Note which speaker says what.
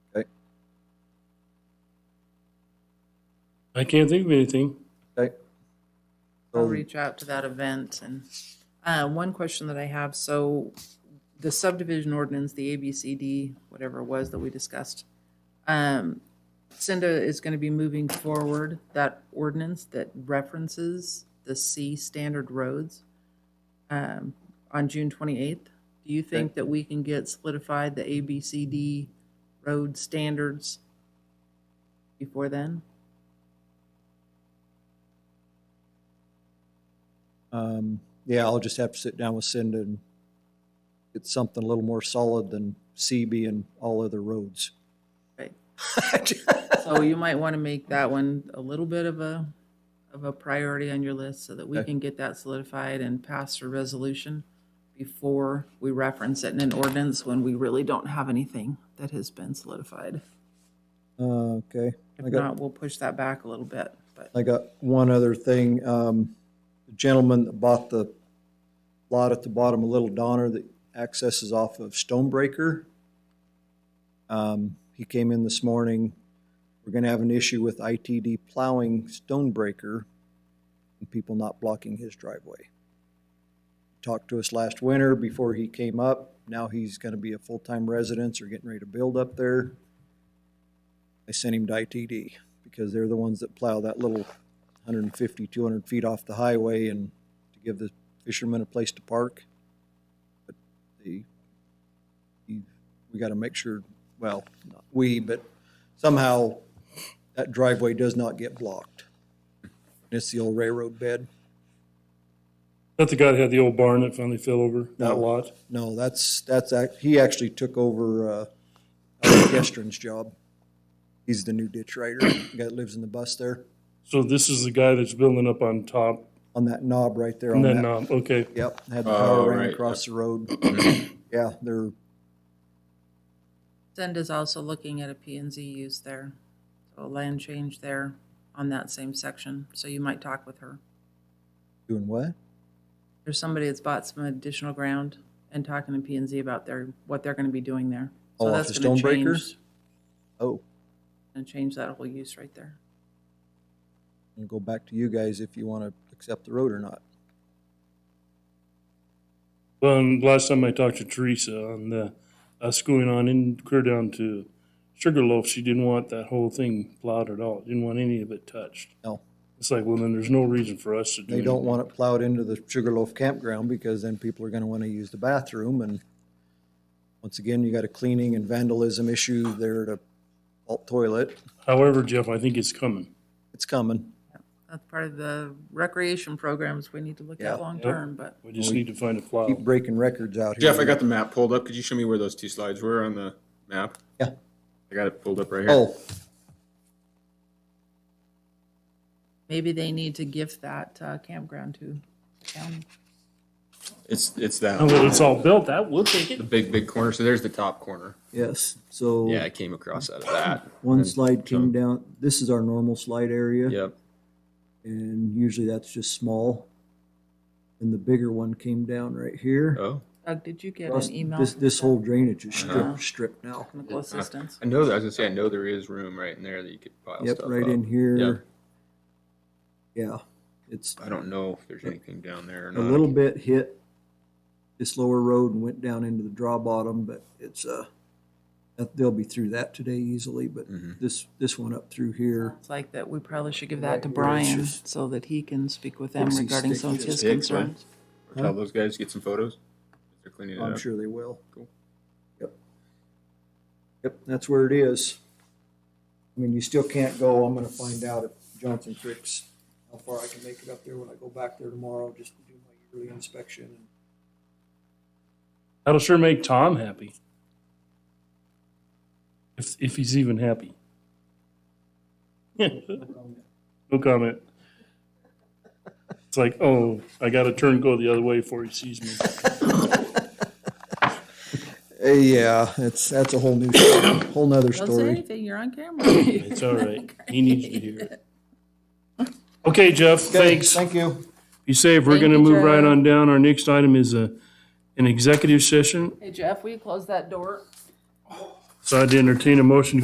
Speaker 1: I can't think of anything.
Speaker 2: Okay.
Speaker 3: I'll
Speaker 2: Um,
Speaker 3: reach out to that event and, uh, one question that I have, so the subdivision ordinance, the ABCD, whatever it was that we discussed, um, Cinda is gonna be moving forward that ordinance that references the C standard roads, um, on June twenty-eighth. Do you think that we can get solidified the ABCD road standards before then?
Speaker 2: Um, yeah, I'll just have to sit down with Cindy and get something a little more solid than CB and all other roads.
Speaker 3: Right.
Speaker 2: Okay,
Speaker 3: So you might want to make that one a little bit of a, of a priority on your list so that we
Speaker 2: Okay.
Speaker 3: can get that solidified and pass a resolution before we reference it in an ordinance when we really don't have anything that has been solidified.
Speaker 2: Uh,
Speaker 3: If
Speaker 2: I got-
Speaker 3: not, we'll push that back a little bit, but
Speaker 2: I got one other thing. Um, the gentleman that bought the lot at the bottom of Little Donner that accesses off of Stonebreaker. Um, he came in this morning. We're gonna have an issue with ITD plowing Stonebreaker and people not blocking his driveway. Talked to us last winter before he came up. Now he's gonna be a full-time resident or getting ready to build up there. I sent him to ITD because they're the ones that plow that little 150, 200 feet off the highway and to give the fishermen a place to park. But the, he- we got to make sure, well, not we, but somehow that driveway does not get blocked. And it's the old railroad bed.
Speaker 1: Not the guy that had the old barn that finally fell over, that
Speaker 2: No.
Speaker 1: lot.
Speaker 2: No, that's, that's, ac- he actually took over uh, Albert Gestern's job. He's the new ditch rider, the guy that lives in the bus there,
Speaker 1: So this is the guy that's building up on top.
Speaker 2: on that knob right there on
Speaker 1: And
Speaker 2: that.
Speaker 1: then, um, okay,
Speaker 2: Yep, had the
Speaker 4: Oh,
Speaker 2: power ran
Speaker 4: right.
Speaker 2: across the road. Yeah, they're,
Speaker 3: Zenda's also looking at a P and Z use there, so a land change there on that same section, so you might talk with her.
Speaker 2: doing what?
Speaker 3: There's somebody that's bought some additional ground and talking to P and Z about their, what they're going to be doing there.
Speaker 2: Oh,
Speaker 3: So
Speaker 2: off
Speaker 3: that's
Speaker 2: the
Speaker 3: gonna
Speaker 2: Stonebreaker?
Speaker 3: change-
Speaker 2: Oh,
Speaker 3: and change that whole use right there.
Speaker 2: and go back to you guys if you want to accept the road or not.
Speaker 1: well, and last time I talked to Teresa on the, us going on in, clear down to Sugarloaf, she didn't want that whole thing plowed at all. Didn't want any of it touched.
Speaker 2: No,
Speaker 1: It's like, well, then there's no reason for us to do.
Speaker 2: they
Speaker 4: Mm-hmm.
Speaker 2: don't
Speaker 1: anything.
Speaker 2: want it plowed into the Sugarloaf campground because then people are going to want to use the bathroom and once again, you got a cleaning and vandalism issue there at a vault toilet.
Speaker 1: However, Jeff, I think it's coming.
Speaker 2: It's coming.
Speaker 3: That's part of the recreation programs we need to look
Speaker 2: Yeah.
Speaker 3: at long-term, but
Speaker 1: We just need to find a plow.
Speaker 2: Keep breaking records out here.
Speaker 4: Jeff, I got the map pulled up. Could you show me where those two slides were on the map?
Speaker 2: Yeah.
Speaker 4: I got it pulled up right here.
Speaker 2: Oh,
Speaker 3: maybe they need to gift that uh, campground to the county.
Speaker 4: It's it's that
Speaker 2: Oh.
Speaker 1: Now that it's all built, that will take it.
Speaker 4: the big big corner. So there's the top corner.
Speaker 2: yes. So
Speaker 4: Yeah, I came across out of that.
Speaker 2: one
Speaker 4: And-
Speaker 2: slide came down. This is our normal slide area.
Speaker 4: Yep.
Speaker 2: and usually that's just small. And the bigger one came down right here.
Speaker 4: Oh,
Speaker 3: Doug, did you get
Speaker 2: Plus,
Speaker 3: an email?
Speaker 2: This, this whole drainage is
Speaker 3: Uh-huh.
Speaker 2: stripped, stripped now.
Speaker 3: Technical assistance.
Speaker 4: I know that. I was gonna say I know there is room right in there that you could pile
Speaker 2: Yep,
Speaker 4: stuff uh,
Speaker 2: right
Speaker 4: up.
Speaker 2: in here.
Speaker 4: Yep.
Speaker 2: Yeah, it's
Speaker 4: I don't know if there's anything down there or
Speaker 2: a
Speaker 4: not.
Speaker 2: little bit hit this lower road and went down into the draw bottom, but it's, uh, that- they'll be through that today easily, but
Speaker 4: Mm-hmm.
Speaker 2: this, this one up through here.
Speaker 3: It's like that, we probably should give that to
Speaker 2: Right, where it's
Speaker 3: Brian
Speaker 2: just-
Speaker 3: so that he can speak with them
Speaker 2: Fixie
Speaker 3: regarding some of
Speaker 2: sticky
Speaker 3: his
Speaker 4: sticks, right?
Speaker 3: concerns.
Speaker 4: Tell those guys to get some photos. They're cleaning it
Speaker 2: I'm
Speaker 4: up.
Speaker 2: sure they will.
Speaker 4: Cool.
Speaker 2: Yep. Yep, that's where it is. I mean, you still can't go, I'm gonna find out if Johnson Creek's, how far I can make it up there when I go back there tomorrow, just to do my yearly inspection. and
Speaker 1: That'll sure make Tom happy. If, if he's even happy. No comment. It's like, oh, I got to turn, go the other way before he sees me.
Speaker 2: Uh, Yeah, it's, that's a whole new, story, whole nother
Speaker 3: Don't say
Speaker 2: story.
Speaker 3: anything, you're on camera.
Speaker 1: It's all right. He needs to hear it. Okay, Jeff, thanks.
Speaker 2: Thank you.
Speaker 1: Be safe. We're
Speaker 3: Thank
Speaker 1: going to
Speaker 3: you,
Speaker 1: move right
Speaker 3: Jeff.
Speaker 1: on down. Our next item is a, an executive session.
Speaker 3: Hey Jeff, will you close that door?
Speaker 1: So I'd entertain a motion to